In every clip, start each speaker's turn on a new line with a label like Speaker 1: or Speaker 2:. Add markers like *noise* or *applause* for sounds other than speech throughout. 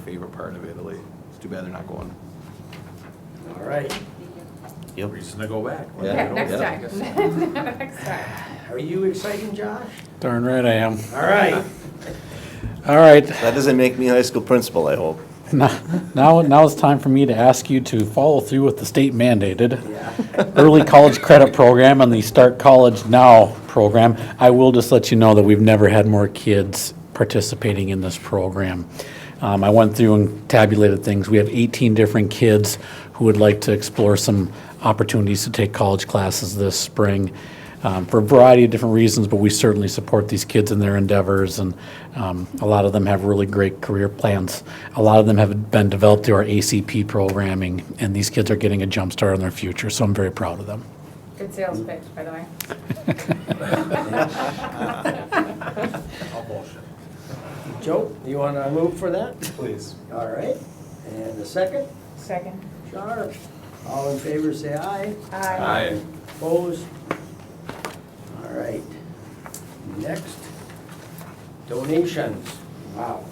Speaker 1: favorite part of Italy. It's too bad they're not going.
Speaker 2: All right.
Speaker 3: Yep.
Speaker 2: Reason to go back.
Speaker 1: Yeah,
Speaker 4: Yeah, next
Speaker 1: yeah.
Speaker 4: time. Next time.
Speaker 2: Are you excited, Josh?
Speaker 5: Darn right I am.
Speaker 2: All right.
Speaker 5: All right,
Speaker 3: That doesn't make me high school principal, I hope.
Speaker 5: now, now it's time for me to ask you to follow through with the state mandated
Speaker 2: Yeah.
Speaker 5: early college credit program and the Start College Now program. I will just let you know that we've never had more kids participating in this program. Um, I went through and tabulated things. We have 18 different kids who would like to explore some opportunities to take college classes this spring um, for a variety of different reasons, but we certainly support these kids in their endeavors, and um, a lot of them have really great career plans. A lot of them have been developed through our ACP programming, and these kids are getting a jump start on their future, so I'm very proud of them.
Speaker 4: Good sales pitch, by the way.
Speaker 2: Joe, you want to move for that?
Speaker 1: Please.
Speaker 2: All right. And the second,
Speaker 4: Second.
Speaker 2: Sharp. All in favor, say aye.
Speaker 4: Aye.
Speaker 1: Aye.
Speaker 2: Opposed? All right. Next, donations. Wow.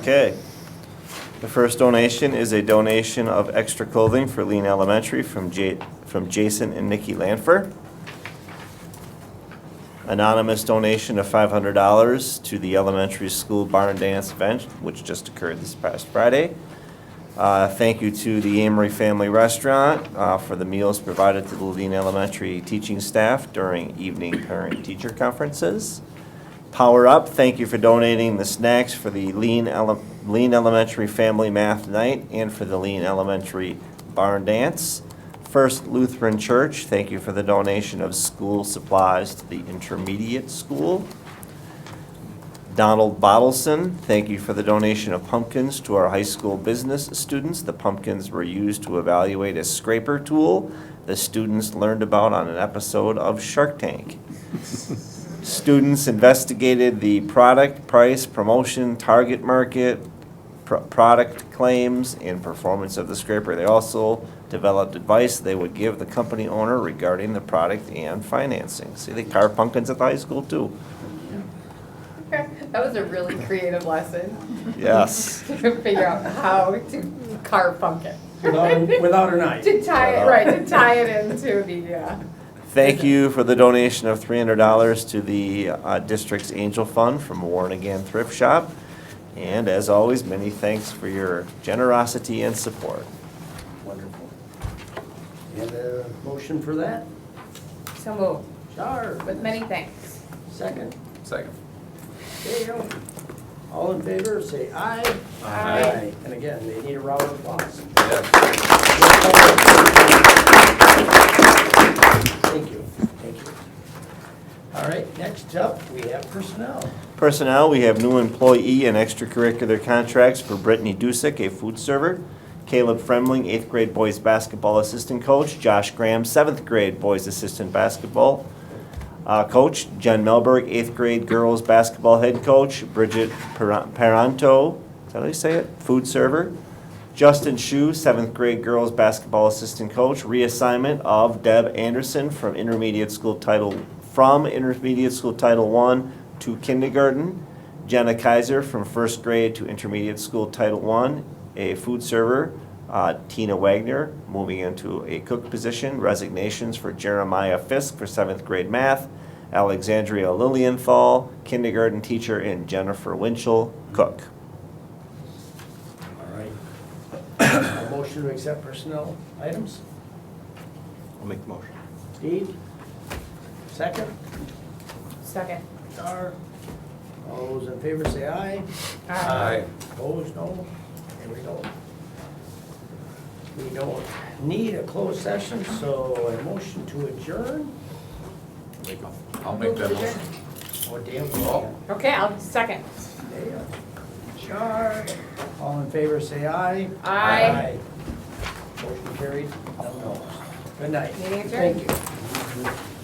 Speaker 3: Okay. The first donation is a donation of extra clothing for Lean Elementary from Ja- from Jason and Nikki Lanfer. Anonymous donation of five hundred dollars to the elementary school barn dance event, which just occurred this past Friday. Uh, thank you to the Amory Family Restaurant, uh, for the meals provided to the Lean Elementary teaching staff during evening parent-teacher conferences. Power Up, thank you for donating the snacks for the Lean, Ele- Lean Elementary Family Math Night and for the Lean Elementary Barn Dance. First Lutheran Church, thank you for the donation of school supplies to the intermediate school. Donald Bottleson, thank you for the donation of pumpkins to our high school business students. The pumpkins were used to evaluate a scraper tool the students learned about on an episode of Shark Tank. Students investigated the product, price, promotion, target market, pro- product claims, and performance of the scraper. They also developed advice they would give the company owner regarding the product and financing. See, they carve pumpkins at the high school too.
Speaker 4: That was a really creative lesson. *laughs*
Speaker 3: Yes.
Speaker 4: To figure out how to carve pumpkin.
Speaker 2: Without without a knife.
Speaker 4: To tie it, right, to tie it into the, uh,
Speaker 3: Thank you for the donation of three hundred dollars to the uh, district's Angel Fund from Warren Again Thrift Shop. And as always, many thanks for your generosity and support.
Speaker 2: Wonderful. And a motion for that?
Speaker 4: so move,
Speaker 2: Sharp.
Speaker 4: with many thanks.
Speaker 2: Second,
Speaker 1: Second.
Speaker 2: there you go. All in favor, say aye.
Speaker 4: Aye.
Speaker 2: And again, they need a round of applause.
Speaker 1: Yeah.
Speaker 2: Thank you, thank you. All right, next up, we have personnel.
Speaker 3: Personnel, we have new employee and extracurricular contracts for Brittany Dusick, a food server, Caleb Fremling, eighth grade boys basketball assistant coach, Josh Graham, seventh grade boys assistant basketball uh, coach, Jen Melberg, eighth grade girls basketball head coach, Bridget Per- Peranto, is that how you say it? Food server, Justin Shu, seventh grade girls basketball assistant coach, reassignment of Deb Anderson from intermediate school title, from intermediate school title one to kindergarten. Jenna Kaiser from first grade to intermediate school title one, a food server. Uh, Tina Wagner moving into a cook position. Resignations for Jeremiah Fisk for seventh grade math, Alexandria Lilienthal, kindergarten teacher, and Jennifer Winchell, cook.
Speaker 2: All right. A motion to accept personnel items.
Speaker 1: I'll make the motion.
Speaker 2: Steve? Second,
Speaker 4: Second.
Speaker 2: Star? All those in favor say aye.
Speaker 1: Aye.
Speaker 2: Opposed, no? There we go. We don't need a closed session, so a motion to adjourn.
Speaker 1: I'll make that
Speaker 4: Move to
Speaker 1: motion.
Speaker 4: adjourn.
Speaker 2: Oh, damn. we
Speaker 1: Oh.
Speaker 4: Okay, I'll second.
Speaker 2: can't. There you go. Sure. All in favor, say aye.
Speaker 4: Aye.
Speaker 2: Motion carried. No, no. Good night.
Speaker 4: Meeting adjourned.
Speaker 2: Thank you.